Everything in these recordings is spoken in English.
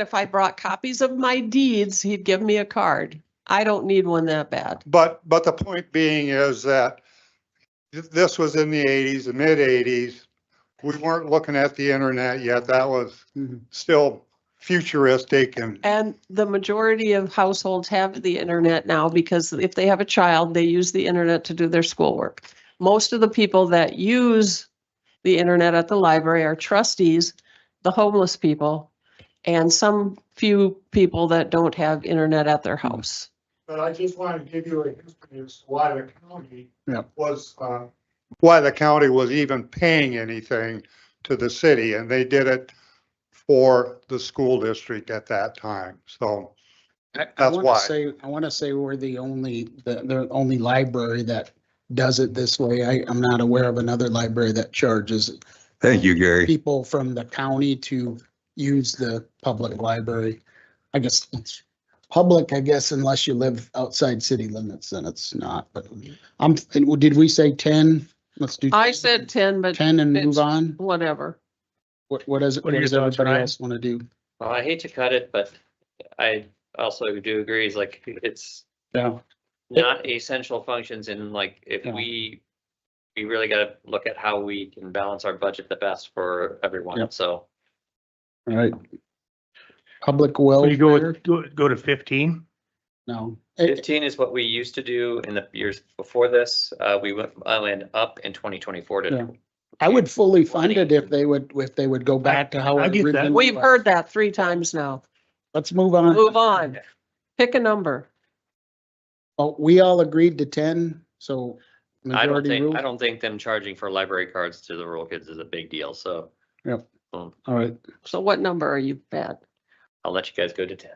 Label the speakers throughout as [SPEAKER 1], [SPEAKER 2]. [SPEAKER 1] if I brought copies of my deeds, he'd give me a card. I don't need one that bad.
[SPEAKER 2] But, but the point being is that th- this was in the eighties, the mid eighties. We weren't looking at the internet yet. That was
[SPEAKER 3] Mhm.
[SPEAKER 2] still futuristic and,
[SPEAKER 1] And the majority of households have the internet now because if they have a child, they use the internet to do their schoolwork. Most of the people that use the internet at the library are trustees, the homeless people, and some few people that don't have internet at their house.
[SPEAKER 4] But I just wanted to give you a history as to why the county
[SPEAKER 3] Yeah.
[SPEAKER 4] was, uh,
[SPEAKER 2] why the county was even paying anything to the city and they did it for the school district at that time. So,
[SPEAKER 3] I- I
[SPEAKER 2] That's
[SPEAKER 3] wanna
[SPEAKER 2] why.
[SPEAKER 3] Say, I want to say we're the only, the, the only library that does it this way. I, I'm not aware of another library that charges
[SPEAKER 5] Thank you, Gary.
[SPEAKER 3] people from the county to use the public library. I guess it's public, I guess, unless you live outside city limits, then it's not, but I'm, and did we say ten? Let's do.
[SPEAKER 1] I said ten, but
[SPEAKER 3] Ten and
[SPEAKER 1] it's-
[SPEAKER 3] move on?
[SPEAKER 1] whatever.
[SPEAKER 3] What, what does, what
[SPEAKER 6] What are your
[SPEAKER 3] does
[SPEAKER 6] thoughts,
[SPEAKER 3] everybody
[SPEAKER 6] Ryan?
[SPEAKER 3] else want to do?
[SPEAKER 6] Well, Oh, I hate to cut it, but I also do agree, is like, it's
[SPEAKER 3] Yeah.
[SPEAKER 6] not essential functions and like, if
[SPEAKER 3] Yeah.
[SPEAKER 6] we, we really gotta look at how we can balance our budget the best for everyone,
[SPEAKER 3] Yep.
[SPEAKER 6] so.
[SPEAKER 3] All right. Public
[SPEAKER 7] Will you go,
[SPEAKER 3] welfare,
[SPEAKER 7] with- go, go to fifteen?
[SPEAKER 3] no. It-
[SPEAKER 6] Fifteen is what we used to do in the years before this, uh, we went, I went up in twenty twenty-four
[SPEAKER 3] Yeah.
[SPEAKER 6] to.
[SPEAKER 3] I would fully fund it if they would, if they would go back to how.
[SPEAKER 7] I
[SPEAKER 3] it
[SPEAKER 7] get that.
[SPEAKER 3] originally
[SPEAKER 1] We've
[SPEAKER 3] was.
[SPEAKER 1] heard that three times now.
[SPEAKER 3] Let's move on.
[SPEAKER 1] Move on. Pick a number.
[SPEAKER 3] Oh, we all agreed to ten, so.
[SPEAKER 6] I don't
[SPEAKER 3] majority
[SPEAKER 6] think,
[SPEAKER 3] rule.
[SPEAKER 6] I don't think them charging for library cards to the rural kids is a big deal, so
[SPEAKER 3] All right,
[SPEAKER 1] So what number are you at?
[SPEAKER 6] I'll let you guys go to ten.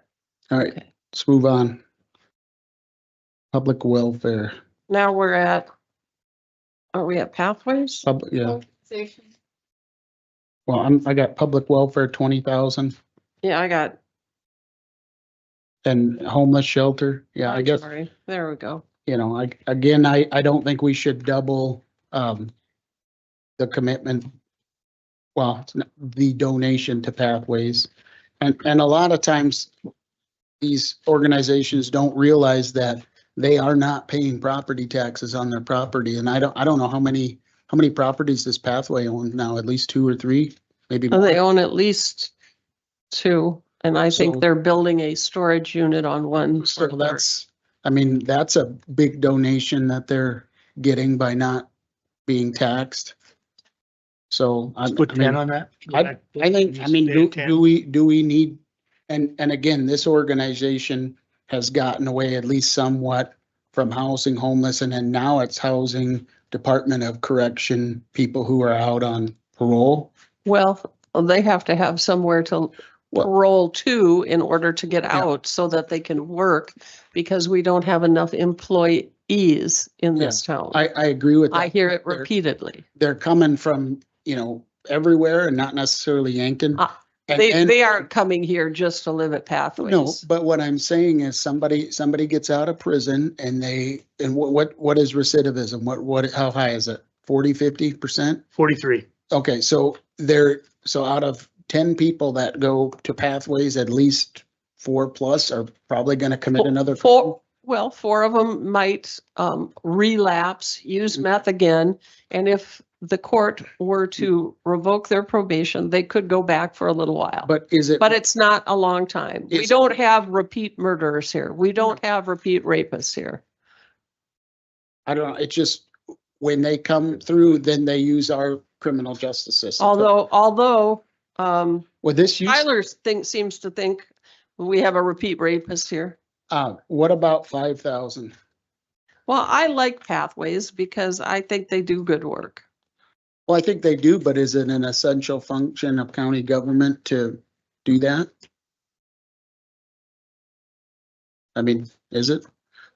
[SPEAKER 3] all right,
[SPEAKER 1] Okay.
[SPEAKER 3] let's move on. Public welfare,
[SPEAKER 1] Now we're at, are we at pathways?
[SPEAKER 3] public, yeah, well, I'm, I got public welfare twenty thousand
[SPEAKER 1] Yeah, I got.
[SPEAKER 3] and homeless shelter. Yeah, I
[SPEAKER 1] I'm
[SPEAKER 3] guess,
[SPEAKER 1] sorry. There we go.
[SPEAKER 3] you know, I, again, I, I don't think we should double, um, the commitment. Well, it's not- the donation to pathways. And, and a lot of times these organizations don't realize that they are not paying property taxes on their property. And I don't, I don't know how many, how many properties this pathway owns now, at least two or three, maybe.
[SPEAKER 1] And Oh, they
[SPEAKER 3] more.
[SPEAKER 1] own at least two, and I
[SPEAKER 3] So-
[SPEAKER 1] think they're building a storage unit on one.
[SPEAKER 3] So
[SPEAKER 1] for their-
[SPEAKER 3] that's, I mean, that's a big donation that they're getting by not being taxed. So. I-
[SPEAKER 7] Put
[SPEAKER 3] I mean,
[SPEAKER 7] ten on that? Go
[SPEAKER 3] I,
[SPEAKER 7] back to-
[SPEAKER 3] I think, I
[SPEAKER 7] just
[SPEAKER 3] mean,
[SPEAKER 7] stay
[SPEAKER 3] do,
[SPEAKER 7] at 10.
[SPEAKER 3] do we, do we need, and, and again, this organization has gotten away at least somewhat from housing homeless and then now it's housing Department of Correction, people who are out on parole.
[SPEAKER 1] Well, they have to have somewhere to
[SPEAKER 3] Well-
[SPEAKER 1] roll to in order to get
[SPEAKER 3] Yeah.
[SPEAKER 1] out so that they can work because we don't have enough employees in
[SPEAKER 3] Yeah.
[SPEAKER 1] this town.
[SPEAKER 3] I, I agree with
[SPEAKER 1] I
[SPEAKER 3] that.
[SPEAKER 1] hear it
[SPEAKER 3] They're-
[SPEAKER 1] repeatedly.
[SPEAKER 3] They're coming from, you know, everywhere and not necessarily Yankton.
[SPEAKER 1] Ah,
[SPEAKER 3] And-
[SPEAKER 1] They,
[SPEAKER 3] and-
[SPEAKER 1] they aren't coming here just to live at
[SPEAKER 3] No,
[SPEAKER 1] Pathways.
[SPEAKER 3] but what I'm saying is somebody, somebody gets out of prison and they, and what, what, what is recidivism? What, what, how high is it? Forty, fifty percent?
[SPEAKER 7] Forty-three.
[SPEAKER 3] Okay, so there, so out of ten people that go to pathways, at least four plus are probably gonna commit
[SPEAKER 1] Four-
[SPEAKER 3] another. crime.
[SPEAKER 1] Four, well, four of them might um, relapse, use
[SPEAKER 3] Mhm.
[SPEAKER 1] meth again. And if the court were to revoke their probation, they could go back for a little while.
[SPEAKER 3] Mm-hmm. But is it,
[SPEAKER 1] But it's not a long time. We
[SPEAKER 3] It's- Mm-hmm.
[SPEAKER 1] don't have repeat murderers here. We don't have repeat rapists here.
[SPEAKER 3] I don't know, it's just, when they come through, then they use our criminal justice system.
[SPEAKER 1] Although, although um,
[SPEAKER 3] Well, this used.
[SPEAKER 1] Tyler thinks, seems to think we have a repeat rapist here.
[SPEAKER 3] uh, what about five thousand?
[SPEAKER 1] Well, I like Pathways because I think they do good work.
[SPEAKER 3] Well, I think they do, but is it an essential function of county government to do that? I mean, is it?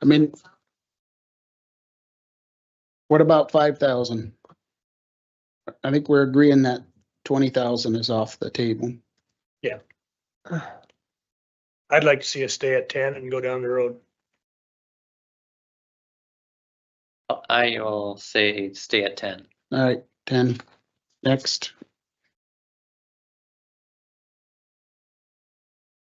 [SPEAKER 3] I mean, what about five thousand? I think we're agreeing that twenty thousand is off the table.
[SPEAKER 7] I'd like to see us stay at ten and go down the road.
[SPEAKER 6] I will say stay at ten.
[SPEAKER 3] All right, ten. Next,